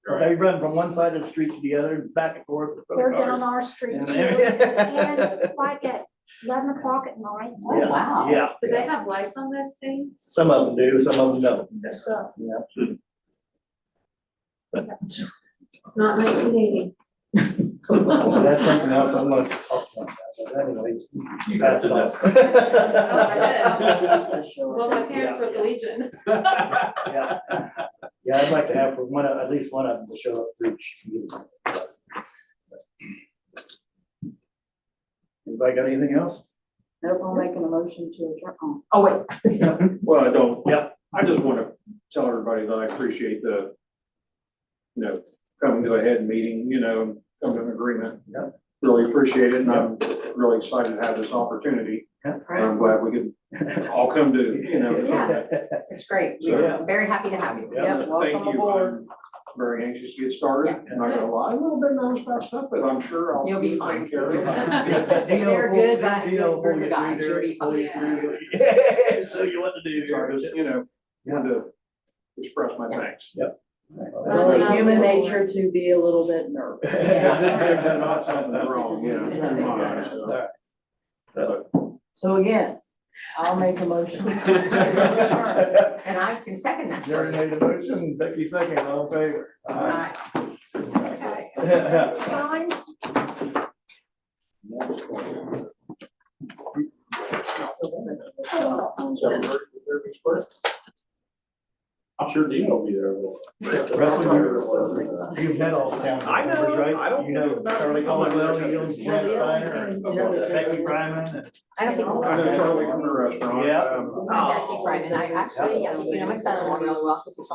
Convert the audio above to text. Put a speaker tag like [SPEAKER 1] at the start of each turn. [SPEAKER 1] They run from one side of the street to the other, back and forth. with
[SPEAKER 2] They're
[SPEAKER 1] both
[SPEAKER 2] down
[SPEAKER 1] cars.
[SPEAKER 2] our street
[SPEAKER 1] And-
[SPEAKER 2] too, and like at eleven o'clock at night, Oh,
[SPEAKER 1] Yeah,
[SPEAKER 3] oh, wow.
[SPEAKER 1] Yeah,
[SPEAKER 4] Do they have lights on those things?
[SPEAKER 1] some of them do, some of them don't.
[SPEAKER 2] so.
[SPEAKER 1] Yeah.
[SPEAKER 4] It's not nineteen eighty.
[SPEAKER 1] That's something else I'm gonna talk about, but anyway.
[SPEAKER 5] You guys did that.
[SPEAKER 1] that.
[SPEAKER 3] Oh,
[SPEAKER 4] Well, my parents were the Legion.
[SPEAKER 1] Yeah, Yeah, I'd like to have one, of- at least one of them to show up for each meeting. Anybody got anything else?
[SPEAKER 3] Nope, I'm making a motion to adjourn. Oh, Oh, wait,
[SPEAKER 5] Well, I don't.
[SPEAKER 1] Yep.
[SPEAKER 5] I just want to tell everybody that I appreciate the, you know, coming to a head meeting, you know, come to an agreement.
[SPEAKER 1] Yep.
[SPEAKER 5] Really appreciate it, and I'm really excited to have this opportunity. I'm glad we could all come to, you know.
[SPEAKER 3] Yeah. it's great.
[SPEAKER 5] So-
[SPEAKER 3] We're very happy to have you.
[SPEAKER 1] Yeah,
[SPEAKER 3] Yep, welcome
[SPEAKER 5] Thank you,
[SPEAKER 3] aboard.
[SPEAKER 5] I'm very anxious to get started,
[SPEAKER 3] Yeah.
[SPEAKER 5] and I got a lot, a little bit nervous about stuff, but I'm sure I'll.
[SPEAKER 3] You'll be
[SPEAKER 5] take
[SPEAKER 3] fine.
[SPEAKER 5] care of it.
[SPEAKER 3] They're good, but you're- you're the guys, you'll be fine.
[SPEAKER 1] So you want to do.
[SPEAKER 5] So I just, you know, wanted to express my thanks.
[SPEAKER 6] It's only human nature to be a little bit nervous.
[SPEAKER 5] If there's not something wrong, you know, it's in my eyes, so.
[SPEAKER 6] So again, I'll make a motion.
[SPEAKER 3] And I can second that. for
[SPEAKER 1] Jerry
[SPEAKER 3] you.
[SPEAKER 1] made the motion, Becky second, all in favor?
[SPEAKER 3] All right.
[SPEAKER 2] Okay. Sign,
[SPEAKER 5] I'm sure Dean will be there.
[SPEAKER 1] Russell, you're- you've met all the town
[SPEAKER 5] I know,
[SPEAKER 1] members, right?
[SPEAKER 5] I don't
[SPEAKER 1] You know
[SPEAKER 5] think about it.
[SPEAKER 1] Charlie Caldwell, you know Jen Steiner, and Becky Bryman.
[SPEAKER 3] I don't think.
[SPEAKER 5] I know Charlie from the restaurant.
[SPEAKER 1] Yeah.
[SPEAKER 5] um,
[SPEAKER 3] I'm Becky Bryman. I actually, I think you know my son-in-law really well, 'cause he